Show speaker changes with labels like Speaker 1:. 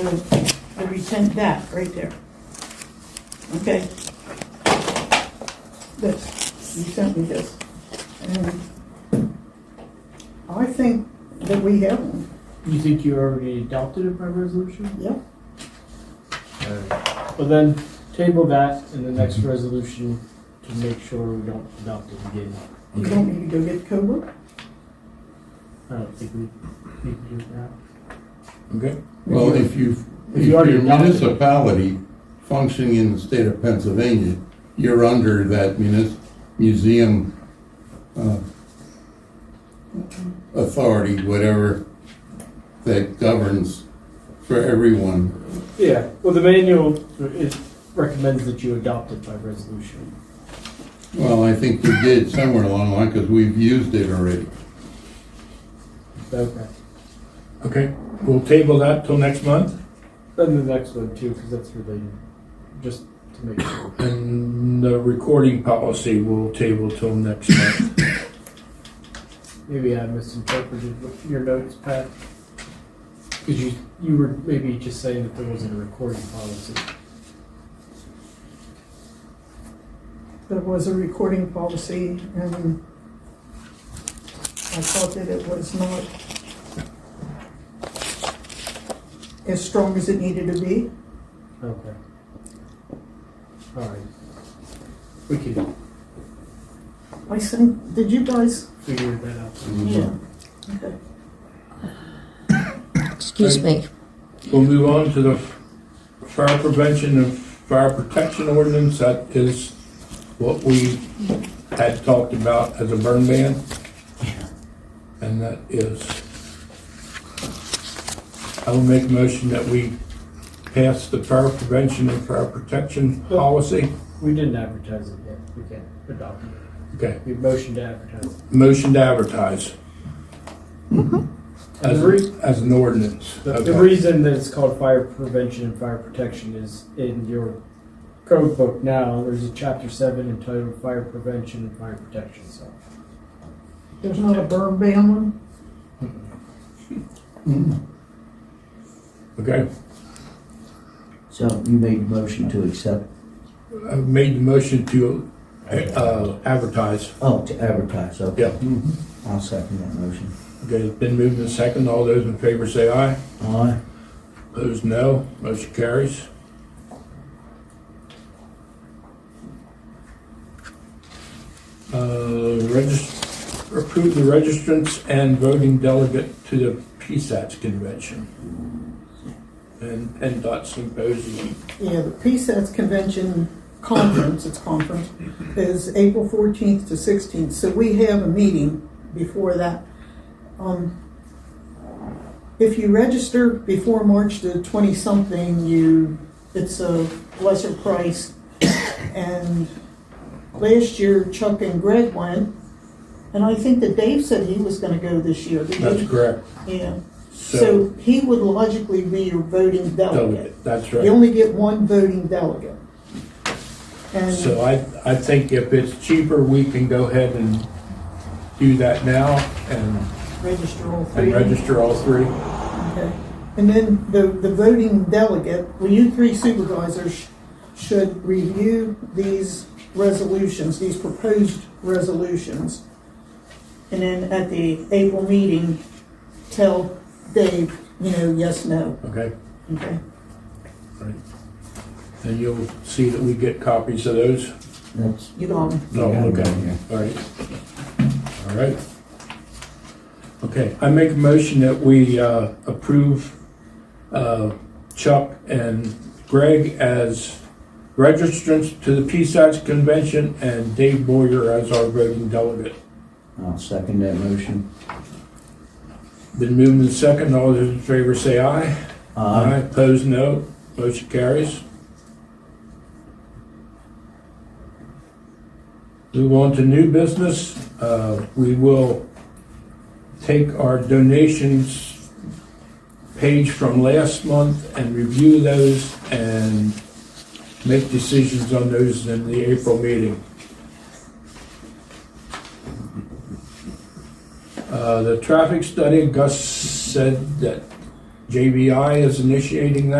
Speaker 1: the, the retent that, right there. Okay? This, you sent me this. And I think that we have one,
Speaker 2: You think you already adopted it by resolution?
Speaker 1: yep.
Speaker 2: Well, then table that in the next resolution to make sure we don't adopt it again.
Speaker 1: You don't need to go get COBRA?
Speaker 2: I don't think we need to do that.
Speaker 3: Okay? Well, if you,
Speaker 2: If you
Speaker 3: if you're
Speaker 2: already
Speaker 3: a
Speaker 2: adopted it.
Speaker 3: municipality functioning in the state of Pennsylvania, you're under that munis, museum, uh, authority, whatever, that governs for everyone.
Speaker 2: Yeah, well, the manual it recommends that you adopt it by resolution.
Speaker 3: Well, I think we did somewhere along the line, because we've used it already.
Speaker 2: Okay.
Speaker 4: Okay, we'll table that till next month,
Speaker 2: Then the next one too, because that's related, just to make sure.
Speaker 4: and the recording policy we'll table till next month.
Speaker 2: Maybe I misinterpreted what your notes, Pat. Because you, you were maybe just saying that there wasn't a recording policy.
Speaker 1: There was a recording policy and I thought that it was not as strong as it needed to be.
Speaker 2: Okay. All right. We can
Speaker 1: I sent, did you guys?
Speaker 2: figure that out.
Speaker 3: Mm-hmm.
Speaker 1: Yeah. Okay.
Speaker 5: Excuse me.
Speaker 4: We'll move on to the fire prevention and fire protection ordinance, that is what we had talked about as a burn ban. And that is, I will make a motion that we pass the fire prevention and fire protection policy.
Speaker 2: We didn't advertise it yet. We can't adopt it.
Speaker 4: Okay,
Speaker 2: We motioned to advertise it.
Speaker 4: motion to advertise.
Speaker 2: And
Speaker 4: As,
Speaker 2: the re-
Speaker 4: as an ordinance.
Speaker 2: The, the
Speaker 4: Okay.
Speaker 2: reason that it's called fire prevention and fire protection is in your code book now, there's a chapter seven entitled fire prevention and fire protection, so.
Speaker 1: There's not a burn ban one?
Speaker 4: Okay,
Speaker 6: So you made a motion to accept,
Speaker 4: I made the motion to, uh, advertise.
Speaker 6: oh, to advertise, okay. Mm-hmm.
Speaker 4: Yeah.
Speaker 6: I'll second that motion.
Speaker 4: Okay, it's been moved and second. All those in favor say aye.
Speaker 6: Aye.
Speaker 4: Opposed, no. Motion carries. Uh, regis- approve the registrants and voting delegate to the PSATS convention and PennDOT symposium.
Speaker 1: Yeah, the PSATS convention conference, it's conference, is April fourteenth to sixteenth, so we have a meeting before that. Um, If you register before March the twenty-something, you, it's a lesser price. And last year Chuck and Greg went, and I think that Dave said he was gonna go this year. didn't
Speaker 4: That's
Speaker 1: he?
Speaker 4: correct.
Speaker 1: Yeah, so
Speaker 4: So,
Speaker 1: he would logically be your voting delegate.
Speaker 4: delegate, that's
Speaker 1: Oh, You
Speaker 4: right.
Speaker 1: only get one voting delegate. And
Speaker 4: So I, I think if it's cheaper, we can go ahead and do that now and
Speaker 1: register all three.
Speaker 4: and register all three.
Speaker 1: Okay. And then the, the voting delegate, well, you three supervisors should review these resolutions, these proposed resolutions. And then at the April meeting, tell Dave, you know, yes, no,
Speaker 4: Okay,
Speaker 1: okay?
Speaker 4: and you'll see that we get copies of those.
Speaker 6: That's.
Speaker 1: You got 'em.
Speaker 4: No, okay, all right. All right. Okay, I make a motion that we uh, approve uh, Chuck and Greg as registrants to the PSATS convention and Dave Boyer as our voting delegate.
Speaker 6: I'll second that motion.
Speaker 4: Been moved and second, all those in favor say aye.
Speaker 6: Uh,
Speaker 4: Aye, opposed, no. Motion carries. Move on to new business. Uh, We will take our donations page from last month and review those and make decisions on those in the April meeting. Uh, The traffic study, Gus said that JVI is initiating that.